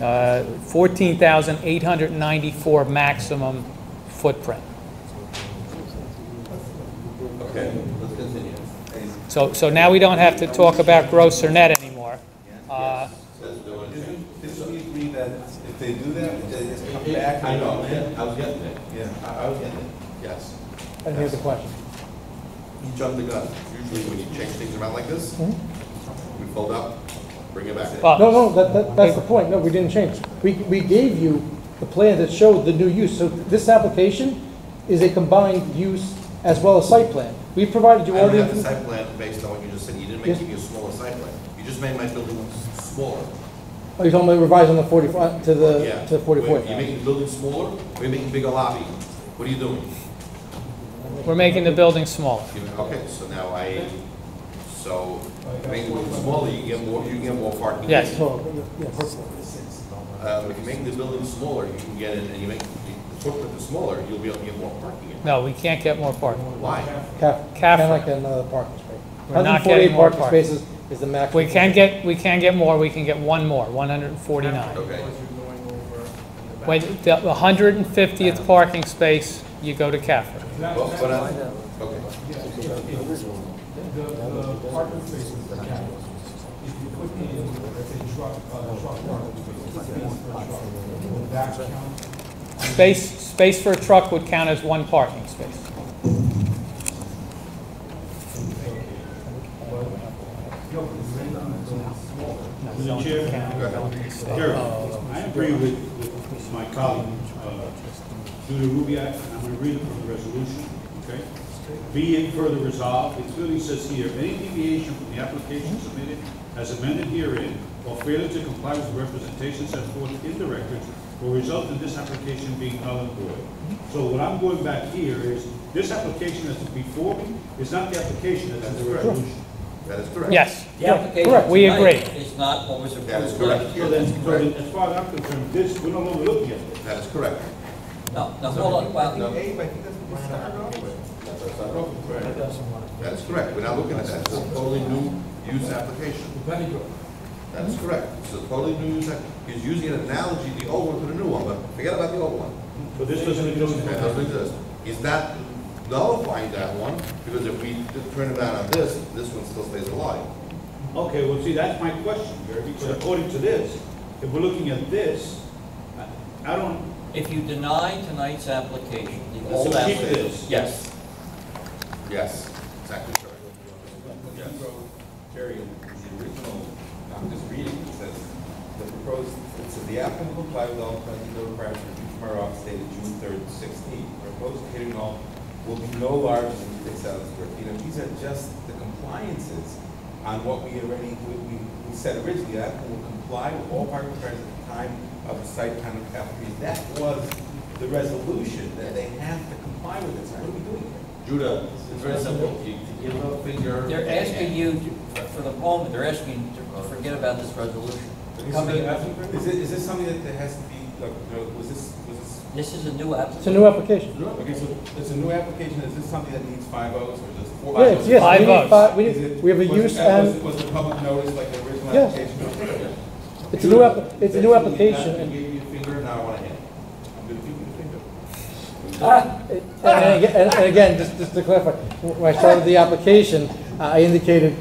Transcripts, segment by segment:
uh, 14,894 maximum footprint. Okay, let's continue. And So, so now we don't have to talk about gross or net anymore. Uh, that's the one thing. Didn't, didn't we agree that if they do that, they just come back? I and- know, I was getting it. Yeah. I I was getting it, yes. I didn't hear the question. You jumped the gun. Usually when you change things around like this, Hmm? we fold up, bring it back. Well- No, no, that, that, that's the point, no, we didn't change. We, we gave you the plan that showed the new use, so this application is a combined use as well as site plan. We provided I you all don't the, have the inf- site plan based on what you just said. You didn't Yes. make, give me a smaller site plan. You just made my building s- smaller. oh, you're talking about revised on the forty-five, to the, Yeah. Uh, to the forty-four. Wait, You're making the building smaller, or you're making bigger lobby? What are you doing? We're making the building smaller. You- Okay, so now I, so, making the building smaller, you get more, you can get more parking. Yes. So, yeah, purple. Um, if you make the building smaller, you can get in, and you make the footprint is smaller, you'll be able to get more parking in. No, we can't get more parking. Why? Caf, Caf- kind of like another parking space. We're not 148 getting more parking parking. spaces is the max. We can get, we can get more, we can get one more, 149. Okay. When the 150th parking space, you go to CAFR. Well, but I, okay. The, the parking spaces for cabins, if you put in, let's say, truck, uh, truck parking spaces, space for a truck, will that count? Space, space for a truck would count as one parking space. Mr. Chair, Jerry, Uh, I agree with, with my colleague, uh, Judy Rubiak, and I'm gonna read it from the resolution, okay? Be it further resolved, it clearly says here, any deviation from the application submitted as amended herein or failure to comply with the representations set forth in the records will result in this application being null and void. So what I'm going back here is, this application that's before me is not the application that's in the resolution. That is correct. Yes, The application correct, we tonight agree. is not what was approved. That is correct. So then, so then, as far as I'm concerned, this, we're no longer looking at this. That is correct. No, no, hold on, well, No, Hey, but he doesn't want to start over. that's not wrong. That is correct. We're not looking at that. It's a totally new use application. That is correct. It's a totally new use. app- He's using an analogy, the old one to the new one, but forget about the old one. So this doesn't exist. That doesn't exist. He's not nullifying that one, because if we turn it around on this, this one still stays alive. Okay, well, see, that's my question, Gary, because according to this, if we're looking at this, I- I don't, if you deny tonight's application, the so old keep application. this. Yes. Yes, exactly correct. Yes. Jerry, the original, I'm just reading, it says, the proposed, it says the applicant will apply with all present no requirements for review from our office dated June third, sixteen. Proposed catering hall will be no larger than six thousand square feet, and these are just the compliances on what we already, we, we we said originally, the applicant will comply with all parking requirements at the time of the site plan of application. That was the resolution, that they have to comply with it, so what are we doing here? Judah, it's very simple. You you give a finger. They're asking you, to- for the moment, they're asking to forget about this resolution. Is Coming- it- Is it, is this something that there has to be, like, you know, was this, was this? This is a new It's a application. new application. Okay, so it's a new application, is this something that needs five votes, or just four? Yeah, it's- yes, Five we votes. need five, we Is need, it- we have a was it- use Was, and, was the public notice like the original Yes. application? it's a new app, it's a new application. You and- gave me a finger, now I want to hit it. I'm gonna give you a finger. And, and aga- and- and again, just, just to clarify, when I started the application, uh, I indicated,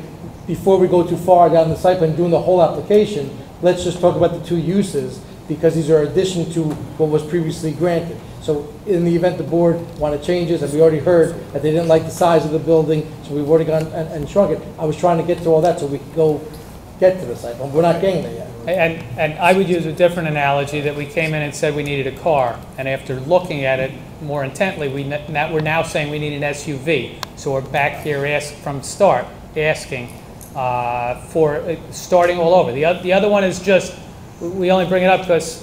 before we go too far down the site plan, doing the whole application, let's just talk about the two uses, because these are addition to what was previously granted. So in the event the board wanted changes, and we already heard that they didn't like the size of the building, so we've already gone and, and shrunk it, I was trying to get to all that so we could go get to the site plan, we're not getting there yet. And, and I would use a different analogy, that we came in and said we needed a car, and after looking at it more intently, we, n- now, we're now saying we need an SUV. So we're back here ask, from start, asking, uh, for, uh, starting all over. The other, the other one is just, we only bring it up because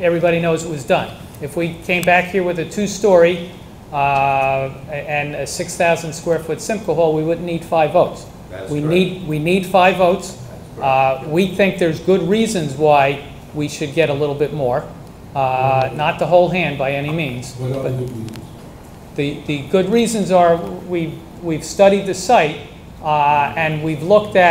everybody knows it was done. If we came back here with a two-story, uh, and a six thousand square foot Simco Hall, we wouldn't need five votes. That is We correct. need, we need five votes. Uh, We think there's good reasons why we should get a little bit more, Uh, not the whole hand by any means. but The, the good reasons are, we, we've studied the site, uh, and we've looked at